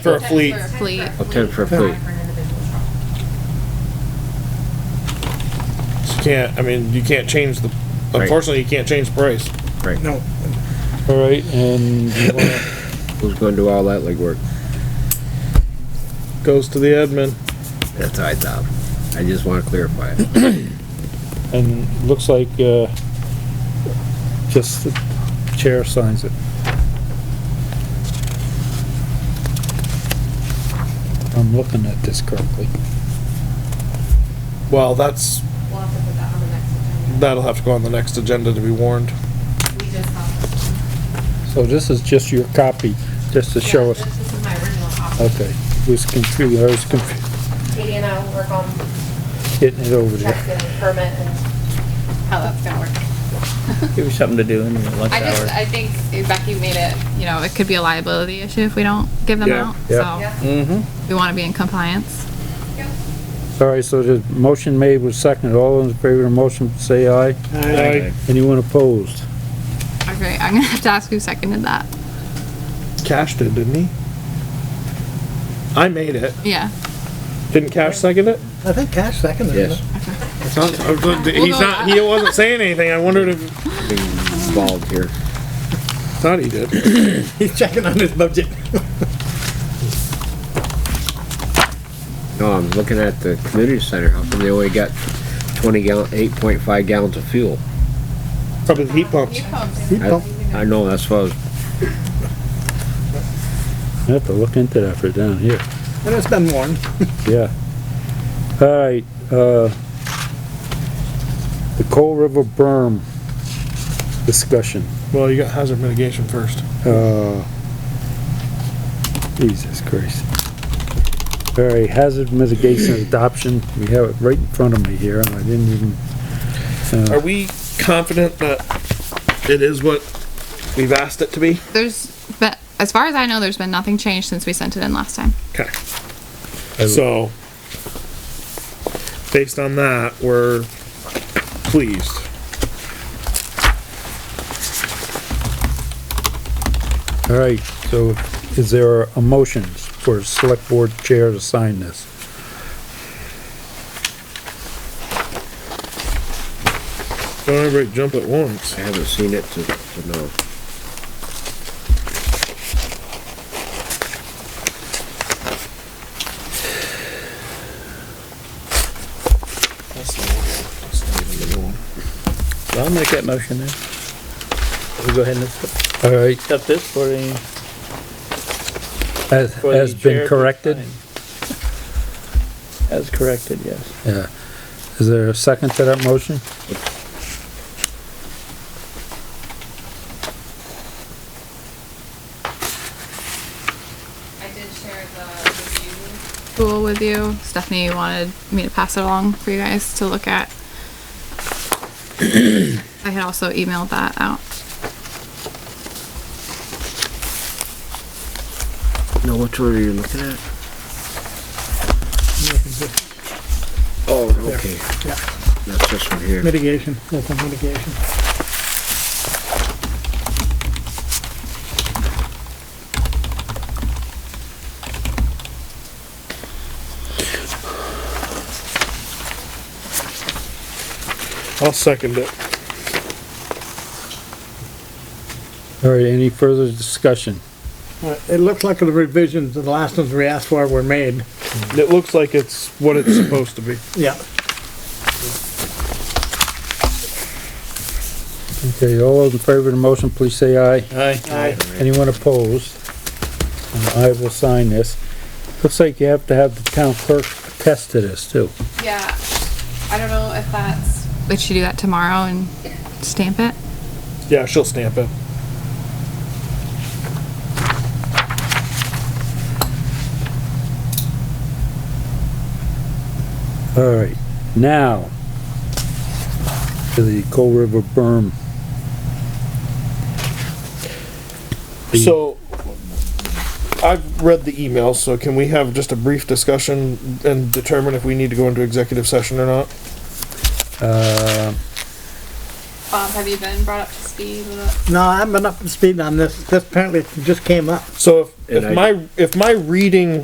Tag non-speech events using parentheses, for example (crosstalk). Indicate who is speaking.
Speaker 1: For a fleet.
Speaker 2: Fleet.
Speaker 3: Oh, ten for a fleet.
Speaker 2: an individual truck.
Speaker 1: You can't, I mean, you can't change the,
Speaker 3: Right.
Speaker 1: unfortunately, you can't change the price.
Speaker 3: Right.
Speaker 1: No.
Speaker 4: All right, and you wanna-
Speaker 3: Who's gonna do all that legwork?
Speaker 1: Goes to the admin.
Speaker 3: That's what I thought. I just wanna clarify it.
Speaker 4: and looks like, uh, just the chair signs it. I'm looking at this correctly.
Speaker 1: Well, that's,
Speaker 2: We'll have to put that on the next agenda.
Speaker 1: that'll have to go on the next agenda to be warned.
Speaker 2: We just have this
Speaker 4: So
Speaker 2: one.
Speaker 4: this is just your copy, just to show
Speaker 2: Yeah,
Speaker 4: us.
Speaker 2: This this is my original copy.
Speaker 4: Okay, was confused, I was confu-
Speaker 2: Katie and I will work on
Speaker 4: getting it over there.
Speaker 2: checks and permit and how that's gonna work.
Speaker 5: Give you something to do in your lunch
Speaker 6: I just,
Speaker 5: hour.
Speaker 6: I think Becky made it, you know, it could be a liability issue if we don't give them
Speaker 1: Yeah.
Speaker 6: out,
Speaker 2: Yeah.
Speaker 6: so
Speaker 1: Mm-hmm.
Speaker 6: we wanna be in compliance.
Speaker 4: All right, so the motion made was seconded. All those in favor of the motion, say aye.
Speaker 1: Aye.
Speaker 4: Anyone opposed?
Speaker 6: Okay, I'm gonna have to ask who seconded that.
Speaker 1: Cash did, didn't he? I made it.
Speaker 6: Yeah.
Speaker 1: Didn't Cash second it?
Speaker 7: I think Cash seconded it.
Speaker 3: Yes,
Speaker 1: It sounds- I was- He's not, he wasn't saying anything. I wondered if,
Speaker 3: being involved here.
Speaker 1: thought he did.
Speaker 7: He's checking on his budget.
Speaker 3: No, I'm looking at the community center. How come they only got twenty gallon, eight point five gallons of fuel?
Speaker 1: Probably the heat pumps.
Speaker 3: I, I know, that's why I was,
Speaker 4: I have to look into that for down here.
Speaker 7: And it's been warned.
Speaker 4: Yeah. All right, uh, the Coal River berm discussion,
Speaker 1: Well, you got hazard mitigation first.
Speaker 4: uh, Jesus Christ. All right, hazard mitigation adoption, we have it right in front of me here, and I didn't even,
Speaker 1: Are we confident that it is what we've asked it to be?
Speaker 6: There's, but as far as I know, there's been nothing changed since we sent it in last time.
Speaker 1: Okay. So, based on that, we're pleased.
Speaker 4: all right, so is there a motion for select board chair to sign this?
Speaker 1: Don't everybody jump at once.
Speaker 3: I haven't seen it to, to know.
Speaker 5: I'll make that motion then. We'll go ahead and accept
Speaker 4: All right,
Speaker 5: accept this for the.
Speaker 4: has,
Speaker 5: for the
Speaker 4: has
Speaker 5: chair
Speaker 4: been
Speaker 5: to
Speaker 4: corrected,
Speaker 5: sign. As corrected, yes.
Speaker 4: yeah. Is there a second to that motion?
Speaker 2: I did share the review
Speaker 6: Cool with you. Stephanie wanted me to pass it along for you guys to look at. (coughs) I had also emailed that out.
Speaker 3: No, which one are you looking at? Oh, okay.
Speaker 7: Yeah.
Speaker 3: That's this one here.
Speaker 7: Mitigation, that's a mitigation.
Speaker 1: I'll second it.
Speaker 4: All right, any further discussion?
Speaker 7: Uh, It looks like the revisions, to the last ones we asked for were made.
Speaker 1: It looks like it's what it's supposed to be.
Speaker 7: Yeah.
Speaker 4: Okay, all those in favor of the motion, please say aye.
Speaker 7: Aye.
Speaker 4: Anyone opposed? And I will sign this. Looks like you have to have the town clerk attest to this too.
Speaker 6: Yeah, I don't know if that's. Would she do that tomorrow and stamp it?
Speaker 1: Yeah, she'll stamp it.
Speaker 4: All right, now to the Coal River berm.
Speaker 1: So, I've read the email, so can we have just a brief discussion and determine if we need to go into executive session or not?
Speaker 4: Uh,
Speaker 6: Bob, have you been brought up to speed with it?
Speaker 7: No, I haven't been up to speed on this. This apparently just came up.
Speaker 1: So if,
Speaker 3: And I-
Speaker 1: if my, if my reading